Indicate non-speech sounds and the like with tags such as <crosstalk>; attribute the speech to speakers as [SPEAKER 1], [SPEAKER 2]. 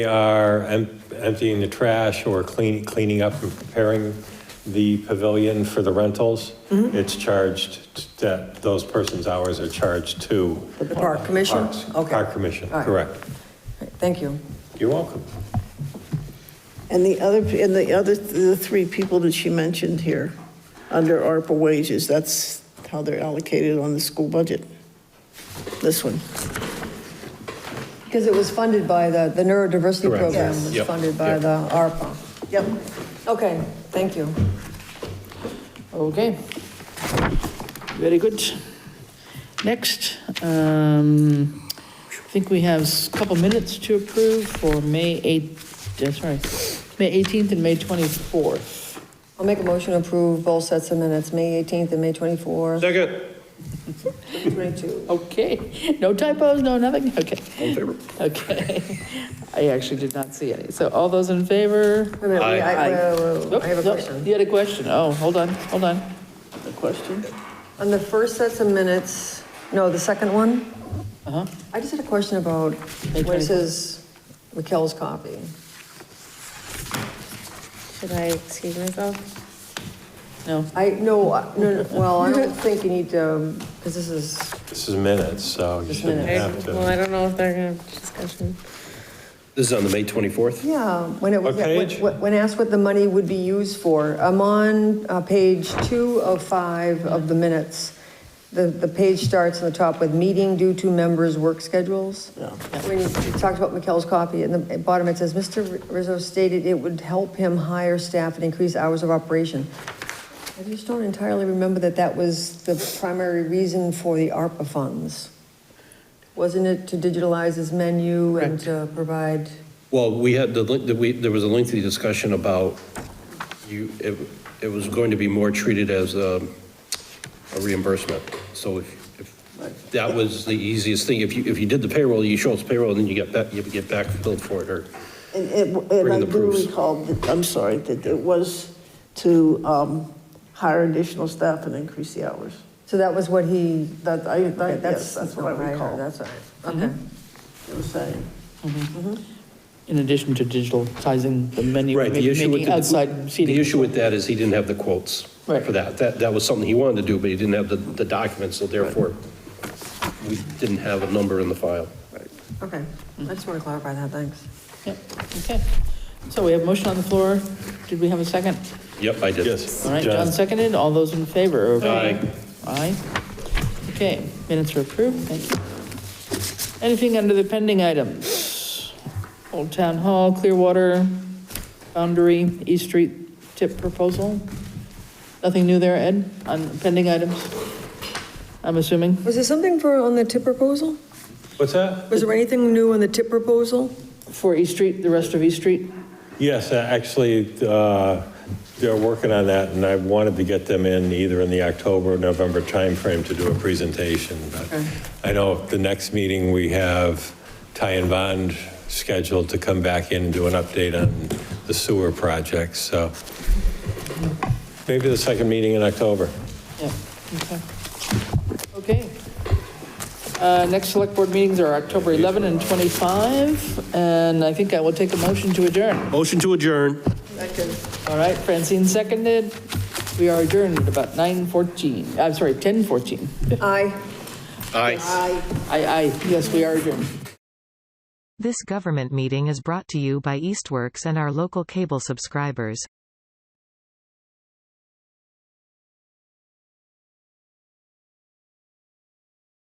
[SPEAKER 1] are em- emptying the trash or clean- cleaning up and preparing the pavilion for the rentals,
[SPEAKER 2] Mm-hmm.
[SPEAKER 1] it's charged, that those persons' hours are charged to.
[SPEAKER 2] The park commission?
[SPEAKER 1] Parks-
[SPEAKER 2] Okay.
[SPEAKER 1] Park Commission,
[SPEAKER 2] All right.
[SPEAKER 1] correct.
[SPEAKER 2] Thank you.
[SPEAKER 1] You're welcome.
[SPEAKER 3] And the other, and the other, the three people that she mentioned here, under ARPA wages, that's how they're allocated on the school budget. This one.
[SPEAKER 2] Because it was funded by the, the neurodiversity
[SPEAKER 1] Correct.
[SPEAKER 2] program
[SPEAKER 1] Yes.
[SPEAKER 2] was
[SPEAKER 1] Yep.
[SPEAKER 2] funded by
[SPEAKER 1] Yep.
[SPEAKER 2] the ARPA.
[SPEAKER 3] Yep.
[SPEAKER 2] Okay, thank you.
[SPEAKER 4] Okay. Very good. Next, um, I think we have a couple minutes to approve for May 8th, uh, sorry, May 18th and May 24th.
[SPEAKER 2] I'll make a motion to approve both sets of minutes, May 18th and May 24th,
[SPEAKER 5] Second.
[SPEAKER 2] 22.
[SPEAKER 4] Okay, <laughs> no typos, no nothing, okay. Okay. <laughs> I actually did not see any. So all those in favor?
[SPEAKER 2] Wait a minute, wait, I whoa, whoa, whoa, I have a
[SPEAKER 4] Oop, nope,
[SPEAKER 2] question.
[SPEAKER 4] You had a question? Oh, hold on, hold on. A question?
[SPEAKER 2] On the first sets of minutes, no, the second one,
[SPEAKER 4] Uh-huh.
[SPEAKER 2] I just had a question about
[SPEAKER 4] May
[SPEAKER 2] where it
[SPEAKER 4] 24th.
[SPEAKER 2] says Raquel's copy.
[SPEAKER 6] Should I excuse myself?
[SPEAKER 4] No,
[SPEAKER 2] I, no, I- no, no, well, I don't think you need to, because this is,
[SPEAKER 1] This is minutes, so you
[SPEAKER 2] Just
[SPEAKER 1] shouldn't
[SPEAKER 2] minutes.
[SPEAKER 1] have
[SPEAKER 6] Well,
[SPEAKER 1] to.
[SPEAKER 6] I don't know if they're gonna have discussion.
[SPEAKER 5] This is on the May 24th?
[SPEAKER 2] yeah, when it was,
[SPEAKER 1] What page?
[SPEAKER 2] when- when asked what the money would be used for, I'm on uh, page two of five of the minutes. The, the page starts on the top with meeting due to members' work schedules. When you you talked about McKell's copy, and the at bottom it says, Mr. Rizzo stated it would help him hire staff and increase hours of operation. I just don't entirely remember that that was the primary reason for the ARPA funds. Wasn't it to digitalize his menu and to provide?
[SPEAKER 5] Well, we had, the link- the- we- there was a lengthy discussion about you, it it was going to be more treated as a a reimbursement. So if, if that was the easiest thing, if you, if you did the payroll, you show us payroll, and then you get back, you get back billed for it, or
[SPEAKER 3] And it,
[SPEAKER 5] Bring
[SPEAKER 3] and I
[SPEAKER 5] the
[SPEAKER 3] do
[SPEAKER 5] proofs.
[SPEAKER 3] recall, that- I'm sorry, that it was to um, hire additional staff and increase the hours.
[SPEAKER 2] So that was what he,
[SPEAKER 3] That, I,
[SPEAKER 2] okay,
[SPEAKER 3] that,
[SPEAKER 2] that's,
[SPEAKER 3] yes, that's what Mm-hmm. I
[SPEAKER 2] heard,
[SPEAKER 3] recall,
[SPEAKER 2] That's all right, okay.
[SPEAKER 3] it was saying.
[SPEAKER 4] in addition to digitalizing the menu,
[SPEAKER 5] Right, the issue with,
[SPEAKER 4] making
[SPEAKER 5] the
[SPEAKER 4] outside seating.
[SPEAKER 5] the issue with that is he didn't have the quotes
[SPEAKER 4] Right.
[SPEAKER 5] for that. That, that was something he wanted to do, but he didn't have the, the documents, so therefore, we didn't have a number in the file.
[SPEAKER 2] Okay, I just want to clarify that, thanks.
[SPEAKER 4] Yep, okay. So we have motion on the floor. Did we have a second?
[SPEAKER 5] Yep, I did.
[SPEAKER 1] Yes.
[SPEAKER 4] All right,
[SPEAKER 1] John.
[SPEAKER 4] John seconded. All those in favor? of-
[SPEAKER 5] Aye.
[SPEAKER 4] Aye. Okay, minutes are approved. Thank you. Anything under the pending items? Old Town Hall, Clearwater, Boundary, East Street tip proposal? Nothing new there, Ed, on pending items? I'm assuming?
[SPEAKER 2] Was there something for, on the tip proposal?
[SPEAKER 1] What's that?
[SPEAKER 2] Was there anything new on the tip proposal?
[SPEAKER 4] For East Street, the rest of East Street?
[SPEAKER 1] Yes, uh, actually, uh, they're working on that, and I wanted to get them in either in the October, or November timeframe to do a presentation, but I know the next meeting, we have Ty and Bond scheduled to come back in and do an update on the sewer project, so maybe the second meeting in October.
[SPEAKER 4] Yeah, okay. Okay. Uh, Next select board meetings are October 11 and 25, and I think I will take a motion to adjourn.
[SPEAKER 5] Motion to adjourn.
[SPEAKER 4] All right, Francine seconded. We are adjourned at about 9:14, I'm sorry, 10:14.
[SPEAKER 2] Aye.
[SPEAKER 5] Aye.
[SPEAKER 4] Aye, aye, yes, we are adjourned.
[SPEAKER 7] This government meeting is brought to you by Eastworks and our local cable subscribers.